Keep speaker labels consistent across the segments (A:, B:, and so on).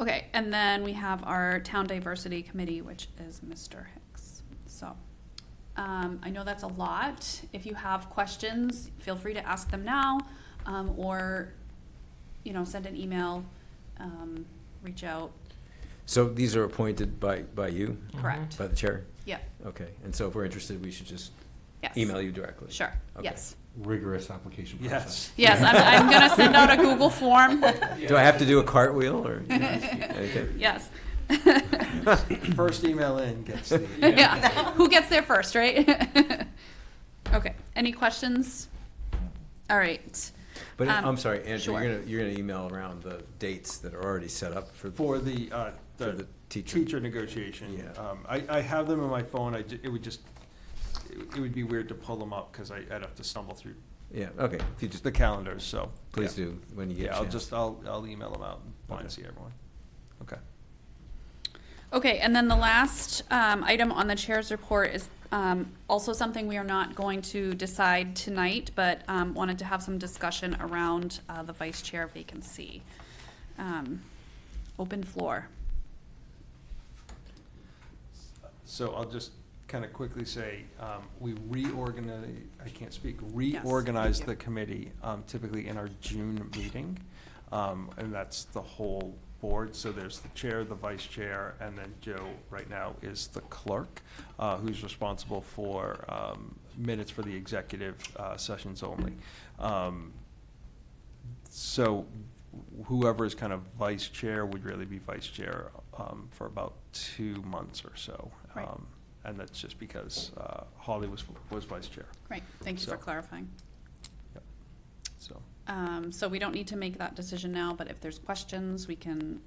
A: Okay, and then we have our town diversity committee, which is Mr. Hicks. So, um, I know that's a lot. If you have questions, feel free to ask them now, um, or, you know, send an email, um, reach out,
B: So these are appointed by, by you,
A: correct?
B: by the chair?
A: Yeah,
B: Okay, and so if we're interested, we should just
A: yes.
B: email you directly?
A: Sure,
B: Okay.
A: yes.
C: rigorous application
D: Yes.
C: process.
A: Yes, I'm, I'm gonna send out a Google form,
B: Do I have to do a cartwheel or? Okay.
A: yes.
D: First email in gets the.
A: Yeah, who gets there first, right? Okay, any questions? All right.
B: But uh,
A: Um,
B: I'm sorry, Andrew,
A: sure.
B: you're gonna, you're gonna email around the dates that are already set up for.
D: For the, uh,
B: For
D: the
B: the teacher.
D: teacher negotiation.
B: Yeah.
D: Um, I, I have them on my phone, I, ju- it would just, it would- it would be weird to pull them up, because I, I'd have to stumble through
B: Yeah, okay, if you just,
D: the calendars, so.
B: please
D: yeah.
B: do, when you get a
D: Yeah, I'll
B: chance.
D: just, I'll, I'll email them out, and blind
B: Okay.
D: see everyone. Okay.
A: Okay, and then the last um, item on the chair's report is um, also something we are not going to decide tonight, but um, wanted to have some discussion around uh, the vice chair vacancy. Um, Open floor.
D: So I'll just kind of quickly say, um, we reorganize, I can't speak, reorganize
A: you.
D: the committee um, typically in our June meeting. Um, And that's the whole board, so there's the chair, the vice chair, and then Joe right now is the clerk, uh, who's responsible for um, minutes for the executive uh, sessions only. Um, so whoever is kind of vice chair would really be vice chair um, for about two months or so.
A: Right.
D: Um, And that's just because uh, Holly was, was vice chair,
A: Great, thank you for
D: So-
A: clarifying.
D: so.
A: Um, So we don't need to make that decision now, but if there's questions, we can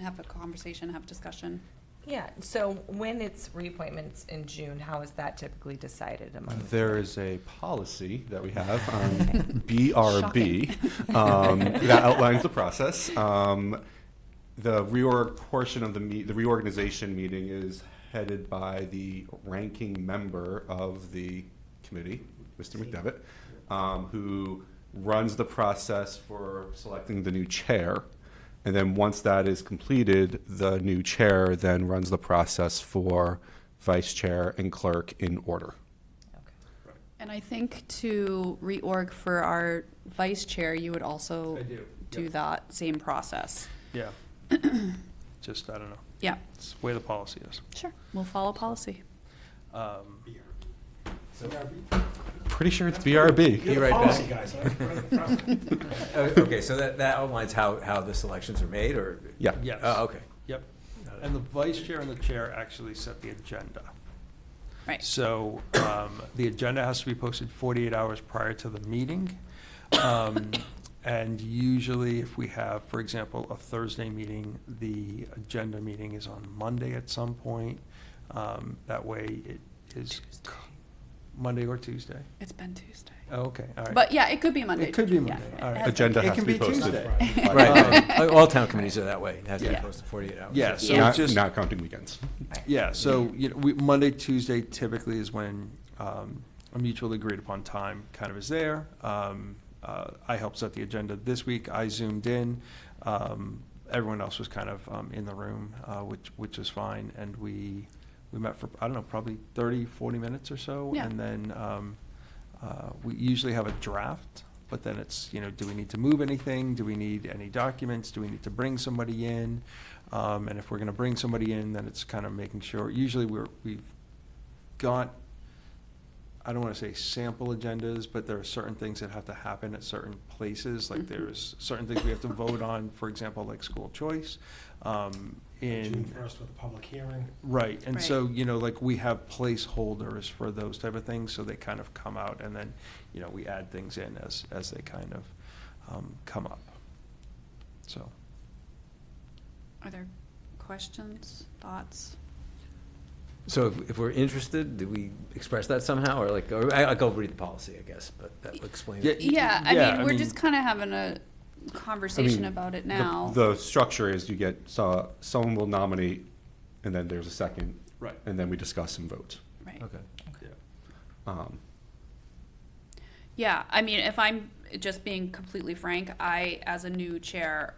A: have a conversation, have discussion.
E: Yeah, so when it's reappointments in June, how is that typically decided among?
C: There is a policy that we have, um, BRB, um, that outlines the process. Um, the reorg portion of the meet, the reorganization meeting is headed by the ranking member of the committee, Mr. McDevitt, um, who runs the process for selecting the new chair. And then once that is completed, the new chair then runs the process for vice chair and clerk in order.
E: Okay.
A: And I think to reorg for our vice chair, you would also
D: I do,
A: do
D: yep.
A: that same process.
D: Yeah. Just, I don't know,
A: Yeah,
D: it's the way the policy is.
A: sure. We'll follow policy.
D: Um,
C: Pretty sure it's BRB.
B: Be right back. Oh, Okay, so that, that outlines how, how the selections are made, or?
C: Yeah.
D: Yes.
B: Oh, okay.
D: Yep. And the vice chair and the chair actually set the agenda.
A: Right.
D: So um, the agenda has to be posted 48 hours prior to the meeting. Um, And usually if we have, for example, a Thursday meeting, the agenda meeting is on Monday at some point. Um, That way it is Monday or Tuesday.
A: It's been Tuesday.
D: Oh, Okay, all right.
A: But yeah, it could be Monday.
D: It could be
A: Yeah.
D: Monday, all right.
C: Agenda
D: It
C: has
D: can
C: to be
D: be
C: posted.
D: Tuesday. Um,
C: by-
B: Right, right. all town committees are that way, it has to be
A: Yeah.
B: posted forty-eight hours.
D: Yeah, so
A: Yeah.
C: Not,
D: just.
C: not counting weekends.
D: Yeah, so, you know, we, Monday, Tuesday typically is when, um, a mutually agreed upon time kind of is there. Um, uh, I helped set the agenda this week, I zoomed in, um, everyone else was kind of, um, in the room, uh, which, which is fine, and we, we met for, I don't know, probably 30, 40 minutes or so.
A: Yeah.
D: And then, um, uh, we usually have a draft, but then it's, you know, do we need to move anything? Do we need any documents? Do we need to bring somebody in? Um, and if we're gonna bring somebody in, then it's kind of making sure, usually we're, we've got, I don't wanna say sample agendas, but there are certain things that have to happen at certain places, like there's certain things we have to vote on, for example, like school choice. Um, in.
F: June first with a public hearing.
D: Right, and
A: Right.
D: so, you know, like, we have placeholders for those type of things, so they kind of come out, and then, you know, we add things in as, as they kind of um, come up. So,
A: Are there questions, thoughts?
B: So if, if we're interested, do we express that somehow, or like, or I, I go read the policy, I guess, but that explains it.
A: Yeah, I
D: Yeah,
A: mean,
D: I
A: we're
D: mean-
A: just kind of having a conversation
C: mean,
A: about it
C: The-
A: now.
C: The structure is you get, so someone will nominate, and then there's a second,
D: right.
C: and then we discuss and vote.
A: Right.
B: Okay.
C: Um,
A: Yeah, I mean, if I'm just being completely frank, I, as a new chair,